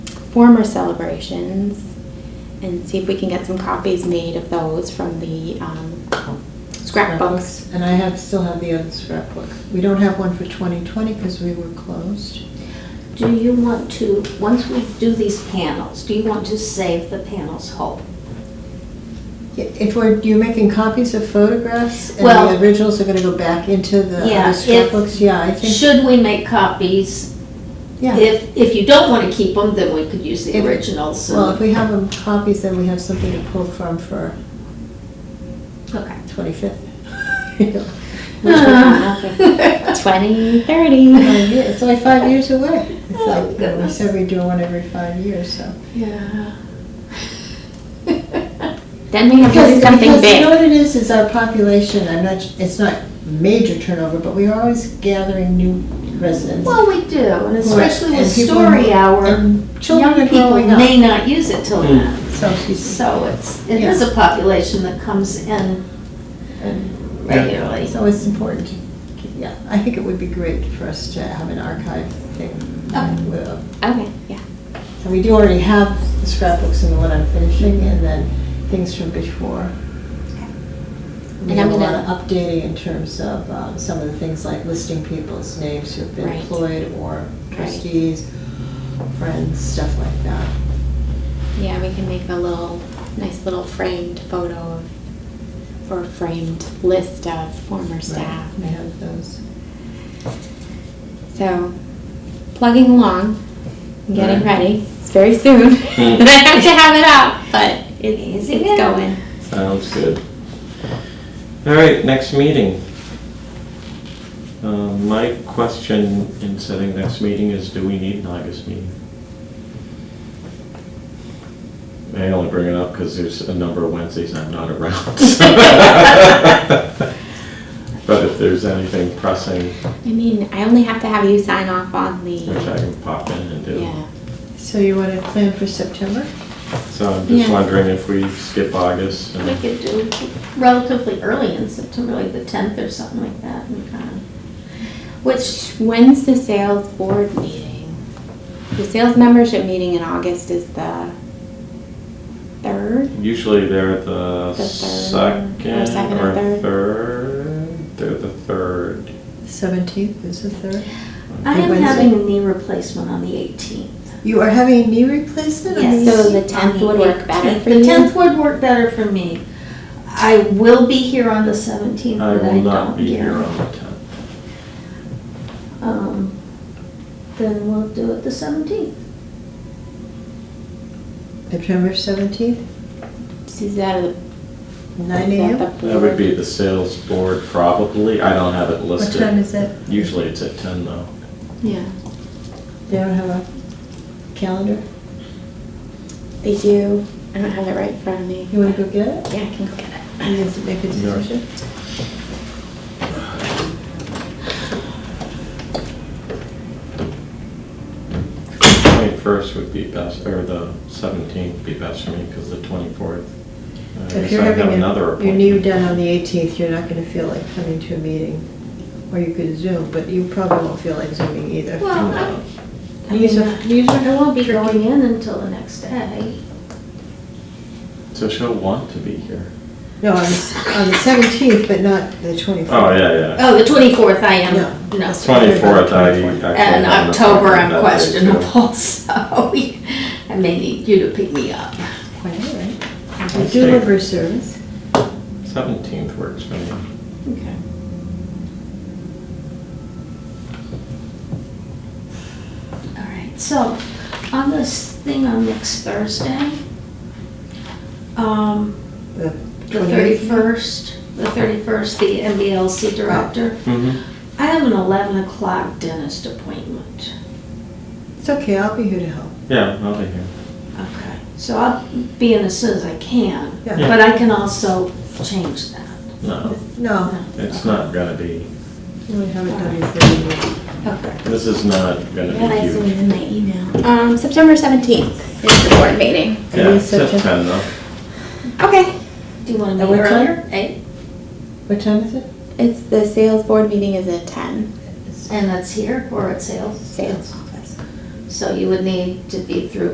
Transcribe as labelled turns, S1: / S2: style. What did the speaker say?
S1: former celebrations and see if we can get some copies made of those from the um, scrapbooks.
S2: And I have, still have the other scrapbook. We don't have one for 2020 because we were closed.
S3: Do you want to, once we do these panels, do you want to save the panels whole?
S2: Yeah, If we're, you're making copies of photographs and
S3: Well-
S2: the originals are gonna go back into the
S3: Yeah,
S2: other
S3: if-
S2: scrapbooks, yeah, I think,
S3: Should we make copies?
S2: yeah.
S3: If, if you don't want to keep them, then we could use the
S2: If-
S3: originals. and-
S2: Well, if we have them copies, then we have something to pull from for
S3: Okay.
S2: 25th.
S1: Twenty thirty.
S2: It's only five years away. It's
S3: Oh,
S2: like, we
S3: goodness.
S2: said we do one every five years, so.
S3: Yeah.
S1: Then we have to do
S2: Because,
S1: something
S2: because you
S1: big.
S2: know what it is, is our population, I'm not, it's not major turnover, but we are always gathering new residents.
S3: Well, we do, and especially with
S2: And people-
S3: story hour,
S2: And children
S3: young
S2: are
S3: people
S2: growing up,
S3: may not use it till then.
S2: so she's,
S3: So it's, it is a population that comes in regularly.
S2: so it's important. to keep- Yeah, I think it would be great for us to have an archive thing.
S3: Okay.
S2: with, uh,
S1: Okay, yeah.
S2: And we do already have the scrapbooks and the one I'm finishing, and then things from before.
S1: And
S2: We
S1: I'm
S2: have a lot of
S1: gonna-
S2: updating in terms of um, some of the things like listing people's names who've been
S1: Right.
S2: employed or
S1: Right.
S2: trustees, friends, stuff like that.
S1: Yeah, we can make a little, nice little framed photo of, or framed list of former staff.
S2: Right, I have those.
S1: So, plugging along, and getting
S4: Right.
S1: ready. It's very soon.
S4: Hmm.
S1: I have to have it up, but it's,
S3: Easy
S1: it's
S3: now.
S1: going.
S4: Sounds good. All right, next meeting. Um, My question in setting next meeting is, do we need an August meeting? I only bring it up because there's a number of Wednesdays I'm not around. But if there's anything pressing,
S1: I mean, I only have to have you sign off on
S4: which
S1: the,
S4: I can pop in and do.
S1: yeah.
S2: So you want to plan for September?
S4: So I'm just
S1: Yeah.
S4: wondering if we skip August
S3: We
S4: and,
S3: could do relatively early in September, like the tenth or something like that, and uh, kind of,
S1: Which, when's the sales board meeting? The sales membership meeting in August is the third?
S4: usually they're the
S1: The third, or
S4: second
S1: second or
S4: or
S1: third.
S4: third. They're the third.
S2: 17th is the third.
S3: I
S2: Or
S3: am
S2: Wednesday.
S3: having a knee replacement on the eighteenth.
S2: You are having a knee replacement? I mean,
S1: Yes. So the 10th would work better for
S3: The
S1: you?
S3: tenth would work better for me. I will be here on the seventeenth,
S4: I
S3: but I
S4: will not
S3: don't
S4: be here
S3: hear.
S4: on the tenth.
S3: Um, Then we'll do it the seventeenth.
S2: September 17th,
S1: Is that the?
S2: nine
S1: is that the
S2: AM?
S4: That
S1: board?
S4: would be the sales board probably. I don't have it
S2: What
S4: listed.
S2: time is it?
S4: Usually it's at ten though.
S1: Yeah,
S2: They don't have a calendar?
S1: they do. I don't have it right in front of me.
S2: You want to go get it?
S1: Yeah, I can go get it.
S2: You have to make a
S4: No.
S2: decision?
S4: Twenty-first would be best, or the seventeenth would be best for me because the twenty-fourth.
S2: If you're having
S4: another
S2: a- your knee
S4: appointment.
S2: done on the 18th, you're not going to feel like coming to a meeting. Or you could Zoom, but you probably won't feel like Zooming either.
S3: Well, I-
S4: Hmm.
S3: I
S2: These
S3: mean, uh,
S2: are- these are
S3: I won't be
S2: tricky.
S3: going in until the next day.
S4: So she'll want to be here.
S2: No, on the s- on the 17th, but not the 24th.
S4: Oh, yeah, yeah.
S3: Oh, the twenty-fourth I
S2: No.
S3: am, no.
S4: Twenty-fourth, I actually.
S2: And
S3: And
S4: have an
S3: October,
S4: appointment
S3: I'm
S4: that day, too.
S3: questionable, so we- I may need you to pick me up.
S2: Quite all right. We
S4: Let's
S2: do
S4: see.
S2: liver service.
S4: Seventeenth works for me.
S3: Okay. All right, so on this thing on next Thursday, um,
S2: The
S3: the 31st, the 31st, the MBLC director,
S4: Mm-hmm.
S3: I have an 11 o'clock dentist appointment.
S2: It's okay, I'll be here to help.
S4: Yeah, I'll be here.
S3: Okay, so I'll be in as soon as I can,
S2: Yeah.
S3: but I can also change that.
S4: No,
S2: No,
S4: it's not gonna be,
S2: we haven't done anything yet.
S3: Okay.
S4: this is not gonna
S3: Then I
S4: be
S3: send
S4: huge.
S3: in my email.
S1: Um, September seventeenth is the board meeting.
S2: It
S4: Yeah,
S2: is
S4: it's just
S2: September.
S4: ten though.
S1: Okay. eh?
S3: Do you want
S2: At
S3: to meet
S2: what time?
S3: earlier? Eight?
S2: What time is it?
S1: It's, the sales board meeting is at ten,
S3: And that's here or at sales?
S1: sales office.
S3: So you would need to be through